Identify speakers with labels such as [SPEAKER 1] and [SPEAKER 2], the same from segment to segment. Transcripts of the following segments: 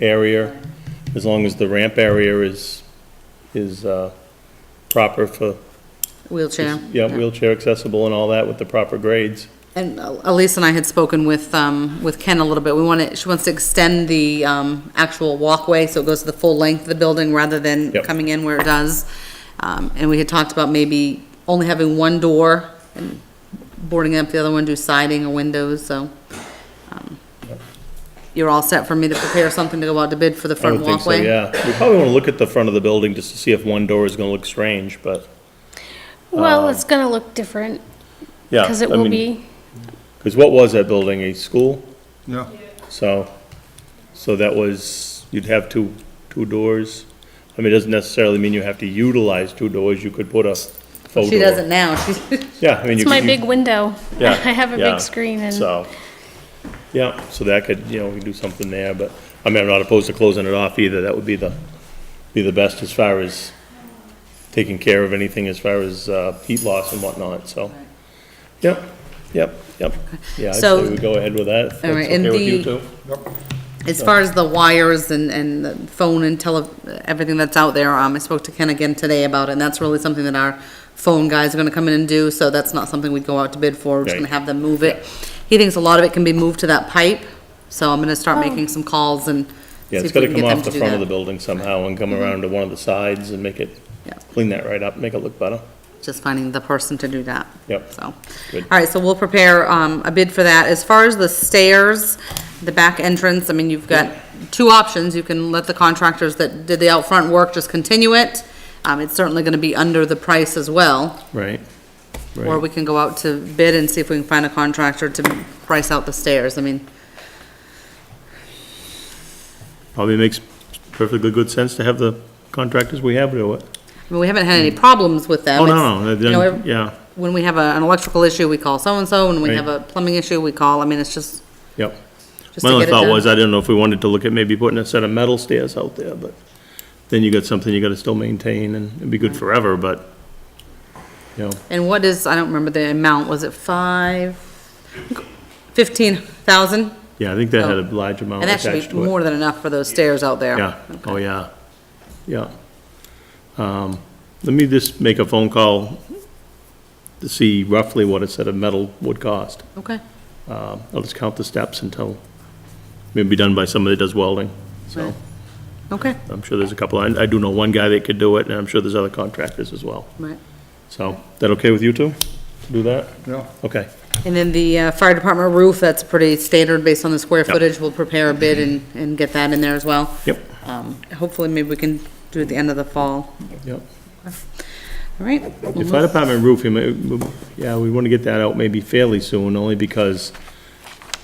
[SPEAKER 1] area, as long as the ramp area is, is uh, proper for,
[SPEAKER 2] Wheelchair.
[SPEAKER 1] yeah, wheelchair accessible and all that with the proper grades.
[SPEAKER 2] And uh, Elise and I had spoken with, um, with Ken a little bit. We want to, she wants to extend the, um, actual walkway, so it goes to the full length of the building rather than
[SPEAKER 1] Yep.
[SPEAKER 2] coming in where it does. Um, and we had talked about maybe only having one door and boarding up the other one, do siding or windows, so. um, You're all set for me to prepare something to go out to bid for the
[SPEAKER 1] I
[SPEAKER 2] front
[SPEAKER 1] don't think so,
[SPEAKER 2] walkway?
[SPEAKER 1] yeah. We probably want to look at the front of the building just to see if one door is going to look strange, but,
[SPEAKER 3] Well, it's gonna look different,
[SPEAKER 1] Um, yeah.
[SPEAKER 3] because it will be,
[SPEAKER 1] Because what was that building, a school?
[SPEAKER 4] Yeah.
[SPEAKER 1] So, so that was, you'd have two, two doors. I mean, it doesn't necessarily mean you have to utilize two doors, you could put a faux
[SPEAKER 2] She
[SPEAKER 1] door.
[SPEAKER 2] doesn't now, she's,
[SPEAKER 1] Yeah, I mean, you
[SPEAKER 3] it's
[SPEAKER 1] could.
[SPEAKER 3] my
[SPEAKER 1] you-
[SPEAKER 3] big window.
[SPEAKER 1] Yeah,
[SPEAKER 3] I have a
[SPEAKER 1] yeah.
[SPEAKER 3] big screen and,
[SPEAKER 1] So, yeah, so that could, you know, we could do something there, but, I mean, I'm not opposed to closing it off either, that would be the, be the best as far as taking care of anything as far as, uh, heat loss and whatnot, so. Yep, yep, yep, yeah, I'd
[SPEAKER 2] So-
[SPEAKER 1] say we go ahead with that, if
[SPEAKER 2] All
[SPEAKER 1] that's
[SPEAKER 2] right, and
[SPEAKER 1] okay with you
[SPEAKER 2] the-
[SPEAKER 1] two.
[SPEAKER 2] As far as the wires and, and the phone and tele, everything that's out there, um, I spoke to Ken again today about it, and that's really something that our phone guys are gonna come in and do, so that's not something we'd go out to bid for, we're just gonna
[SPEAKER 1] Right.
[SPEAKER 2] have them move it. He thinks a lot of it can be moved to that pipe, so I'm gonna start making some calls and see
[SPEAKER 1] Yeah, it's
[SPEAKER 2] if we
[SPEAKER 1] gotta come
[SPEAKER 2] can get them
[SPEAKER 1] off
[SPEAKER 2] to
[SPEAKER 1] the
[SPEAKER 2] do
[SPEAKER 1] front of the
[SPEAKER 2] that. Mm-hmm.
[SPEAKER 1] building somehow and come around to one of the sides and make it,
[SPEAKER 2] Yeah.
[SPEAKER 1] clean that right up, make it look better.
[SPEAKER 2] Just finding the person to do that.
[SPEAKER 1] Yep.
[SPEAKER 2] So, all
[SPEAKER 1] Good.
[SPEAKER 2] right, so we'll prepare, um, a bid for that. As far as the stairs, the back entrance, I mean, you've got two options. You can let the contractors that did the out front work just continue it. Um, it's certainly gonna be under the price as well.
[SPEAKER 1] Right.
[SPEAKER 2] Or we can go out to bid and see if we can find a contractor to price out the stairs. I mean,
[SPEAKER 1] Probably makes perfectly good sense to have the contractors we have do it.
[SPEAKER 2] I mean, we haven't had any problems with them.
[SPEAKER 1] Oh,
[SPEAKER 2] It's-
[SPEAKER 1] no, no,
[SPEAKER 2] you know, ev-
[SPEAKER 1] then, yeah,
[SPEAKER 2] When we have a, an electrical issue, we call so-and-so. When we
[SPEAKER 1] Right.
[SPEAKER 2] have a plumbing issue, we call, I mean, it's just,
[SPEAKER 1] yep.
[SPEAKER 2] just
[SPEAKER 1] My
[SPEAKER 2] to
[SPEAKER 1] only
[SPEAKER 2] get it
[SPEAKER 1] thought
[SPEAKER 2] done.
[SPEAKER 1] was, I didn't know if we wanted to look at maybe putting a set of metal stairs out there, but then you got something you gotta still maintain and it'd be good forever, but, you know,
[SPEAKER 2] And what is, I don't remember the amount, was it five, fifteen thousand?
[SPEAKER 1] yeah, I think that had
[SPEAKER 2] Oh.
[SPEAKER 1] a large amount
[SPEAKER 2] And that should
[SPEAKER 1] attached
[SPEAKER 2] be
[SPEAKER 1] to it.
[SPEAKER 2] more than enough for those stairs out there.
[SPEAKER 1] Yeah, oh, yeah, yeah. Um, let me just make a phone call to see roughly what a set of metal would cost.
[SPEAKER 2] Okay,
[SPEAKER 1] Uh, I'll just count the steps until, maybe done by somebody that does welding, so.
[SPEAKER 2] Right. okay,
[SPEAKER 1] I'm sure there's a couple, I, I do know one guy that could do it, and I'm sure there's other contractors as well.
[SPEAKER 2] right.
[SPEAKER 1] So, that okay with you two? to Do that?
[SPEAKER 4] Yeah.
[SPEAKER 1] Okay,
[SPEAKER 2] And then the uh, fire department roof, that's pretty standard based on the square
[SPEAKER 1] Yep.
[SPEAKER 2] footage. We'll prepare a bid and, and get that in there as well.
[SPEAKER 1] yep,
[SPEAKER 2] Um, hopefully maybe we can do it at the end of the fall.
[SPEAKER 1] yep.
[SPEAKER 2] All right?
[SPEAKER 1] The fire department roof, you may- we- yeah, we want to get that out maybe fairly soon, only because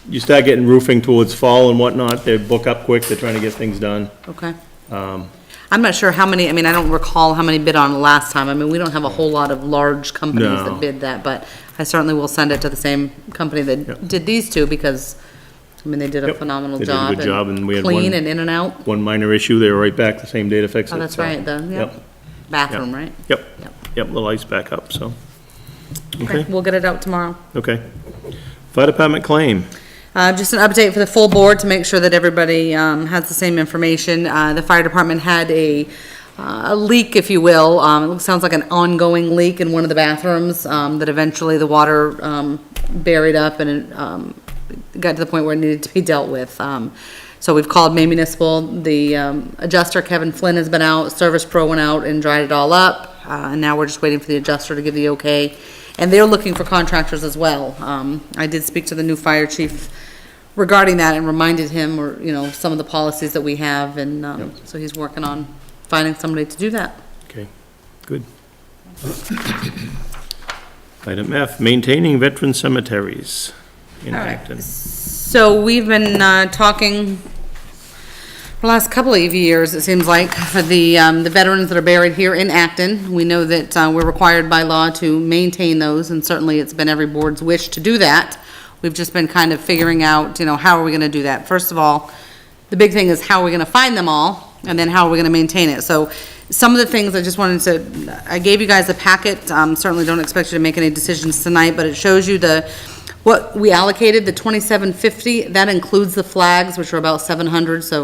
[SPEAKER 1] you start getting roofing towards fall and whatnot, they book up quick, they're trying to get things done.
[SPEAKER 2] Okay.
[SPEAKER 1] Um,
[SPEAKER 2] I'm not sure how many, I mean, I don't recall how many bid on last time. I mean, we don't have a whole lot of large companies
[SPEAKER 1] No.
[SPEAKER 2] that bid that, but I certainly will send it to the same company
[SPEAKER 1] Yep.
[SPEAKER 2] that did these two because, I mean, they did a
[SPEAKER 1] Yep.
[SPEAKER 2] phenomenal
[SPEAKER 1] They did a
[SPEAKER 2] job.
[SPEAKER 1] good job, and we had
[SPEAKER 2] Clean
[SPEAKER 1] one-
[SPEAKER 2] and in and out.
[SPEAKER 1] One minor issue, they were right back the same day to fix it.
[SPEAKER 2] Oh, that's
[SPEAKER 1] so,
[SPEAKER 2] right, the, yeah. Bathroom, right?
[SPEAKER 1] Yep,
[SPEAKER 2] Yep.
[SPEAKER 1] yep, the lights back up, so,
[SPEAKER 2] Okay,
[SPEAKER 1] okay,
[SPEAKER 2] we'll get it out tomorrow.
[SPEAKER 1] okay. Fire department claim,
[SPEAKER 2] Uh, just an update for the full board to make sure that everybody, um, has the same information. Uh, the fire department had a, uh, a leak, if you will. Um, it looks, sounds like an ongoing leak in one of the bathrooms, um, that eventually the water, um, buried up and, um, got to the point where it needed to be dealt with. Um, so we've called May Municipal, the, um, adjuster Kevin Flynn has been out, Service Pro went out and dried it all up. Uh, and now we're just waiting for the adjuster to give the okay. And they're looking for contractors as well. Um, I did speak to the new fire chief regarding that and reminded him, or, you know, some of the policies that we have, and, um, so he's working on finding somebody to do that.
[SPEAKER 1] okay, good. Item F, maintaining veteran cemeteries in
[SPEAKER 2] All right.
[SPEAKER 1] Acton.
[SPEAKER 2] So we've been, uh, talking the last couple of years, it seems like, for the, um, the veterans that are buried here in Acton. We know that, uh, we're required by law to maintain those, and certainly it's been every board's wish to do that. We've just been kind of figuring out, you know, how are we gonna do that? First of all, the big thing is how are we gonna find them all, and then how are we gonna maintain it? So some of the things I just wanted to, I gave you guys a packet, um, certainly don't expect you to make any decisions tonight, but it shows you the, what we allocated, the twenty-seven fifty, that includes the flags, which are about seven hundred, so